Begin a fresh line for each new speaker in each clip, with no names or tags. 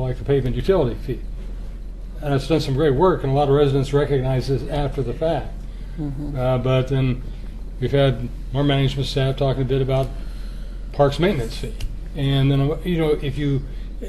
like the pavement utility fee. And it's done some great work, and a lot of residents recognize this after the fact.
Mm-hmm.
Uh, But then we've had our management staff talking a bit about parks maintenance fee. And then, uh, you know, if you,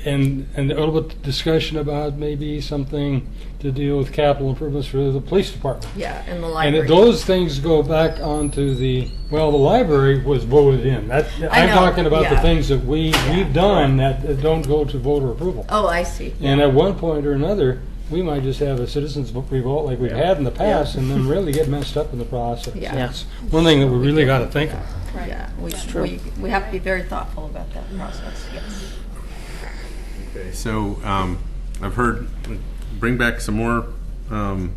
and, and a little bit discussion about maybe something to deal with capital improvements for the police department.
Yeah, and the
And
library.
it- those things go back onto the, well, the library was voted in. That,
I
I'm
know,
talking about the
yeah.
things that we, we've done that that don't go to voter approval.
Oh, I see.
And at one point or another, we might just have a citizens revolt like we've had in the past and then really get messed up in the process.
Yeah.
That's One thing that we really got to think of.
Yeah, we, we, we have to be very thoughtful about that process, yes.
Okay, so um, I've heard, bring back some more um,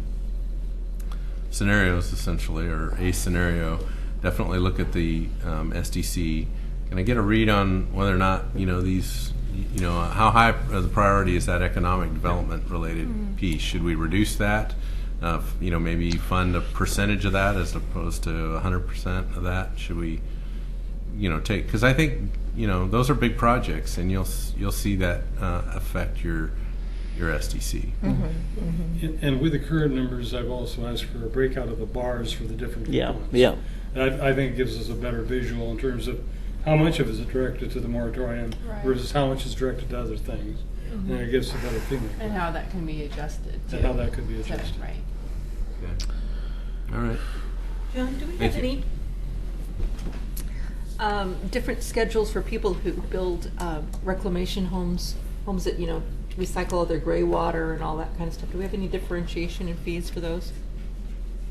scenarios essentially, or a scenario. Definitely look at the um, SDC. Can I get a read on whether or not, you know, these, you know, how high of a priority is that economic development related piece? Should we reduce that? Uh, f- You know, maybe fund a percentage of that as opposed to 100% of that? Should we? you know take because I think you know those are big projects, and you'll s- you'll see that uh, affect your your SDC.
And and with the current numbers, I've also asked for a breakout of the bars for the different
Yeah,
components.
yeah.
That I think gives us a better visual in terms of how much of it is directed to the moratorium
Right. Mm-hmm.
versus how much is directed to other things. And it gives a better feeling
And how that can be adjusted.
to
too.
how that could be
So,
adjusted.
Right.
All right.
John, do we
Thank
have
you.
any um, different schedules for people who build uh, reclamation homes, homes that, you know, recycle all their gray water and all that kind of stuff? Do we have any differentiation in fees for those?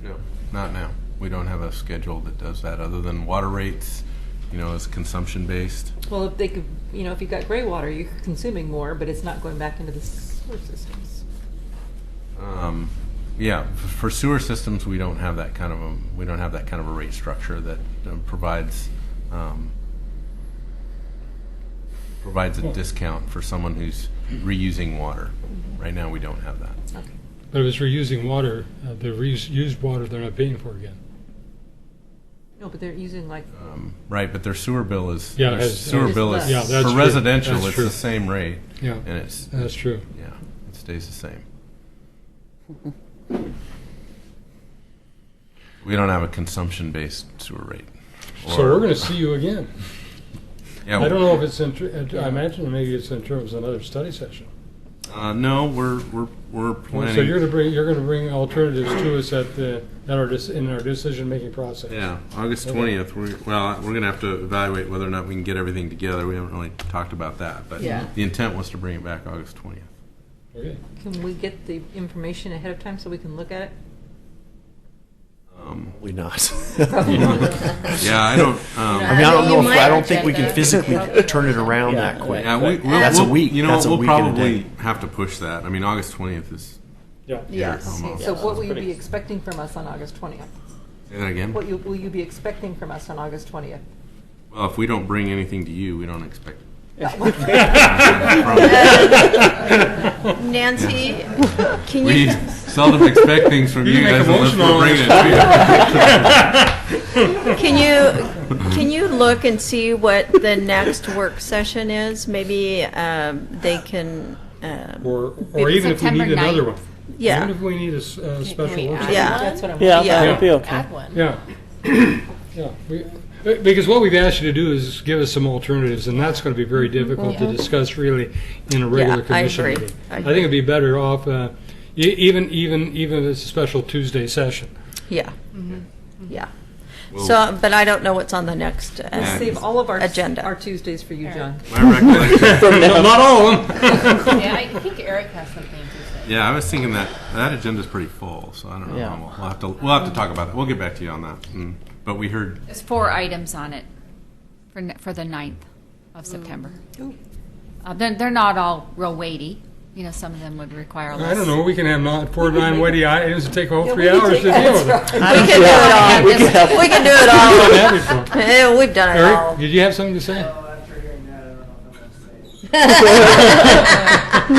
No, not now. We don't have a schedule that does that other than water rates. You know, is consumption based.
Well, if they could, you know, if you've got gray water, you're consuming more, but it's not going back into the sewer systems.
Um, yeah, f- for sewer systems, we don't have that kind of a we don't have that kind of a rate structure that um, provides. Um, provides a discount for someone who's reusing water. Right now we don't have that.
Okay.
But if it's reusing water, uh, the reuse- used water, they're not paying for again.
No, but they're using like,
Right, but their sewer bill is,
Yeah,
their
it's-
sewer
It's
bill
less.
is,
Yeah,
that's
for
true. That's
residential, it's
true.
the same rate.
Yeah.
And it's,
That's true.
yeah, it stays the same. We don't have a consumption-based sewer rate.
So we're going to see you again.
Yeah,
I don't know if it's in, tr- I imagine maybe it's in terms of another study session.
Uh, no, we're, we're,
So you're
we're planning,
gonna bring, you're gonna bring alternatives to us at the, at our, dec- in our decision-making process.
yeah, August twentieth, we're, well, we're gonna have to evaluate whether or not we can get everything together. We haven't really talked about that, but
Yeah.
the intent was to bring it back August twentieth.
Okay.
can we get the information ahead of time so we can look at it?
We not.
Um, Yeah, I don't, um.
I mean, I don't know if, I don't think we
Yeah.
can physically turn it around that quick.
Yeah, we, we'll,
That's a
we'll-
week.
You know,
That's a
we'll
week and a
probably
day.
have to push that. I mean, August twentieth is.
Yeah.
Yes.
almost.
So what will you be expecting from us on August 20th?
Say that again.
What you, will you be expecting from us on August 20th?
Well, if we don't bring anything to you, we don't expect.
Nancy, can
We
you,
seldom expect things from you,
You can
guys
make a
unless
motion
we're
on
bringing
it.
it. to
can you, can you look and see what the next work session is? Maybe um, they can, um,
Or, or even if we
September
need another one.
9th.
Even
yeah,
if we need a, s- uh, special
we
workshop.
add-
yeah.
That's what I'm.
Yeah,
Yeah.
that would be okay.
Add one.
Yeah. Yeah, we, uh, because what we've asked you to do is give us some alternatives, and that's gonna be very difficult to discuss really in a regular
Mm-hmm. Yeah, I
commission
agree.
meeting.
I
I think
agree.
it'd be better off, uh, e- even, even, even if it's a special Tuesday session.
yeah,
Mm-hmm.
yeah.
you. Well,
So, but I don't know what's on the next, uh,
Yeah.
Save all of our,
Agenda.
our Tuesdays for you, John.
My recollection,
No, Not all of them.
Yeah, I think Eric has something to say.
yeah, I was thinking that, that agenda's pretty full, so I don't know.
Yeah.
We'll we'll have to, we'll have to talk about that. We'll get back to you on that. Mm. But we heard,
There's four items on it for, n- for the 9th of September. Uh, they're, they're not all real weighty. You know, some of them would require less.
I don't know, we can have not, four, nine weighty items, it'd take all three hours to deal with it.
we can do it all,
We could have-
we can do it all.
Done that before.
Eh, We've done it all.
Eric, did you have something to say?
Well, after hearing that, I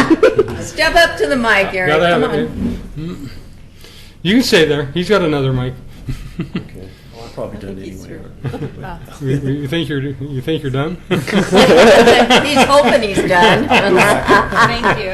don't know if I'm gonna say. it.
Step up to the mic, Eric.
Gotta have
Come
it,
on.
dude. Mm. You can stay there. He's got another mic.
Well,
I
probably done
think he's
anyway.
through.
You- You think you're, you think you're done?
He's hoping he's done.
Thank you.